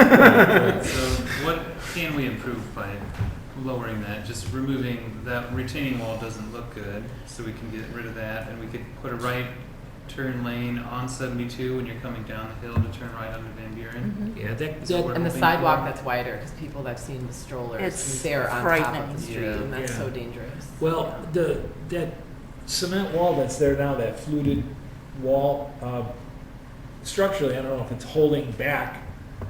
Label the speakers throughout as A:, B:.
A: Yeah. So what can we improve by lowering that? Just removing that retaining wall doesn't look good, so we can get rid of that, and we could put a right turn lane on seventy-two when you're coming down the hill to turn right onto Van Buren.
B: Mm-hmm.
C: Yeah, that,
A: Is that what
C: that, and
A: we're hoping
C: the sidewalk
A: for?
C: that's wider, because people that have seen the strollers,
D: It's
C: they're on top of
D: frightening.
C: the street,
A: Yeah.
C: and that's
B: Yeah.
C: so dangerous.
B: Well, the, that cement wall that's there now, that fluted wall, uh, structurally, I don't know if it's holding back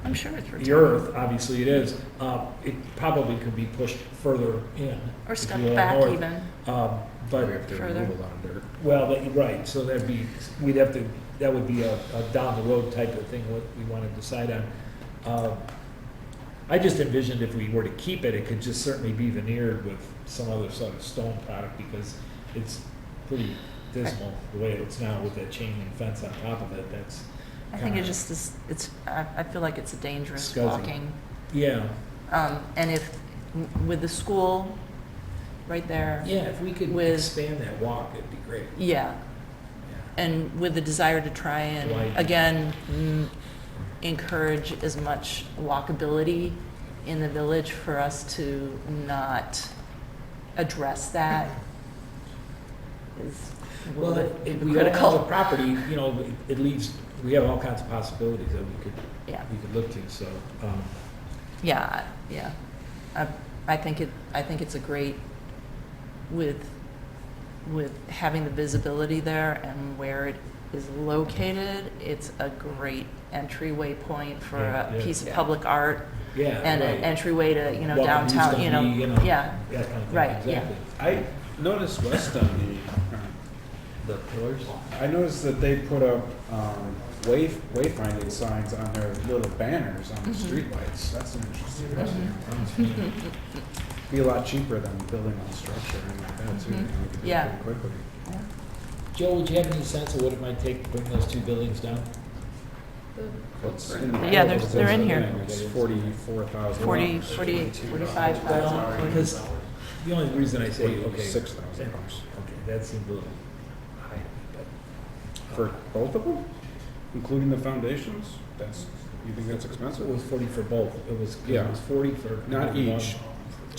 D: I'm sure it's
B: the
D: retaining.
B: earth, obviously it is. Uh, It probably could be pushed further in.
D: Or
B: if
D: step
B: you go
D: back
B: north.
D: even.
B: Um,
E: We
B: But,
E: have to
D: Further.
E: remove a lot of dirt.
B: well, that- right, so that'd be, we'd have to, that would be a a down-the-road type of thing, what we want to decide on. Um, I just envisioned if we were to keep it, it could just certainly be veneered with some other sort of stone product because it's pretty dismal the way it looks now with that chain link fence on top of it. That's,
D: I think it just is, it's, I, I feel like it's a dangerous
B: Scuzzy.
D: walking.
B: yeah.
D: Um, and if, with the school right there.
B: Yeah, if we could
D: With-
B: expand that walk, it'd be great.
D: Yeah,
B: Yeah.
D: and with the desire to try
B: Widen.
D: and, again, mm, encourage as much walkability in the village for us to not address that is a
B: Well,
D: little
B: if
D: bit
B: if we own all the
D: hypocritical.
B: property, you know, it- it leaves, we have all kinds of possibilities that we could,
D: Yeah,
B: we could look to, so. um,
D: yeah, yeah. I, I think it, I think it's a great, with, with having the visibility there and where it is located, it's a great entryway point for
B: Yeah,
D: a
B: yeah.
D: piece of
C: Yeah.
D: public art
B: Yeah.
D: and an
B: right.
D: entryway to, you know,
B: Welcome who's
D: downtown,
B: gonna
D: you
B: be,
D: know, yeah.
B: that kind of thing,
D: Right, yeah.
B: exactly.
F: I noticed west on the, uh,
E: The pillars?
F: I noticed that they put up um, wayf- wayfinding signs on their little banners on the
D: Mm-hmm.
F: streetlights. That's an interesting. idea. Be a lot cheaper than building on structure and like that too.
D: Mhm.
F: and we could do it
D: Yeah.
F: pretty Quickly.
B: Joe, would you have any sense of what it might take to bring those two buildings down?
F: What's in the
D: Yeah, they're-
F: proposal
D: they're in
F: is, I
D: here.
F: think, It's forty-four thousand.
D: Forty, forty-eight, Mm-hmm. forty-five
B: Well,
D: thousand.
B: because the only reason I say, okay,
F: Six
B: okay,
F: thousand dollars.
B: that seems a little high,
F: For both of them? Including the foundations? That's, you think that's
B: but it
F: expensive?
B: was forty for both. It was, it
F: Yeah.
B: was forty for.
F: Not each.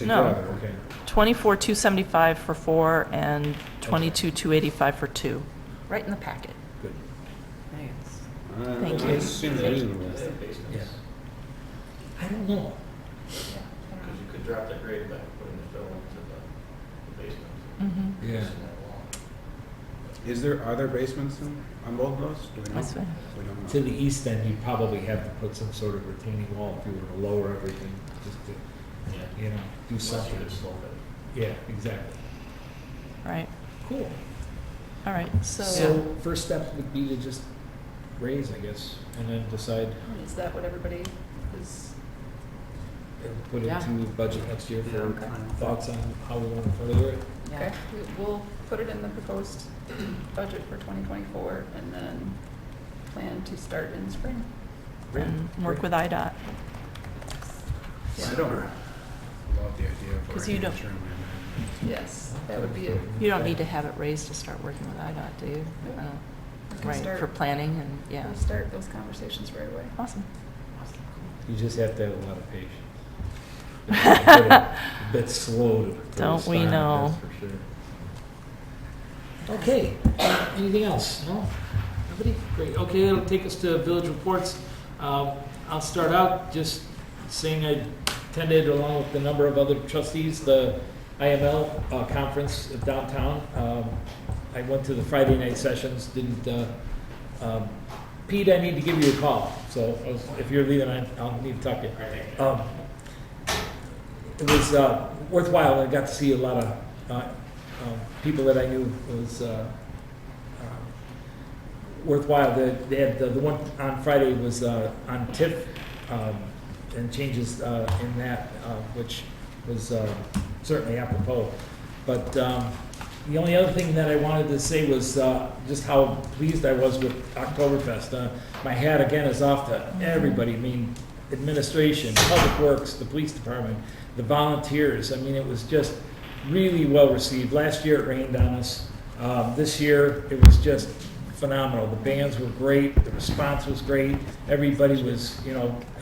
D: No.
F: Together, okay.
D: Twenty-four, two seventy-five for four, and twenty-two, two eighty-five for two. Right in the packet.
B: Good,
C: Thanks.
F: Uh,
D: Thank
F: that
D: you.
F: Seems reasonable.
B: yeah. I don't know.
G: Because you could drop the grade by putting the fill into the- the basement.
D: Mm-hmm.
B: Yeah.
F: Is there, are there basements in, on both of those? Do we know?
D: That's fine.
F: We don't know.
B: To the east end, you'd probably have to put some sort of retaining wall if you were to lower everything, just to,
G: Yeah.
B: you know, do
G: Unless you
B: something.
G: could slope it.
B: Yeah, exactly.
D: Right,
B: Cool.
D: all right, so,
B: So first step would be to just raise, I guess, and then decide,
C: Is that what everybody is?
B: and put it
C: Yeah.
B: into budget next year
A: Yeah,
B: for
A: okay.
B: thoughts on how we want to further it.
D: yeah.
H: We- We'll put it in the proposed budget for 2024 and then plan to start in spring.
D: And
H: Mm-hmm.
D: work with IDOT.
F: I don't love the idea of.
D: 'Cause you don't-
F: arranging a room
H: Yes, that would be it.
D: You don't need to have it raised to start working with IDOT, do you?
H: No.
D: Uh,
H: We can
D: Right,
H: start-
D: for planning and, yeah,
H: We'll start those conversations right away.
D: awesome.
B: You just have to have a lot of patience. It's a bit- a Bit slow to. to
D: Don't we
B: respond,
D: know.
B: that's for sure. Okay, anything else? No? Nobody? Great, okay, that'll take us to village reports. Um, I'll start out just saying I attended along with a number of other trustees, the IML uh, conference of downtown. Um, I went to the Friday night sessions, didn't, uh, um, Pete, I need to give you a call, so I was- if you're leaving, I- I'll need to talk to you. Um, It was uh, worthwhile, I got to see a lot of uh, um, people that I knew, it was uh, uh, worthwhile. The- They had, the the one on Friday was uh, on TIF um, and changes uh, in that, uh, which was uh, certainly apropos. But um, the only other thing that I wanted to say was uh, just how pleased I was with Oktoberfest. Uh, My hat again is off to everybody, I mean, administration, public works, the police department, the volunteers. I mean, it was just really well received. Last year it rained on us. Um, This year, it was just phenomenal. The bands were great, the response was great, everybody was, you know,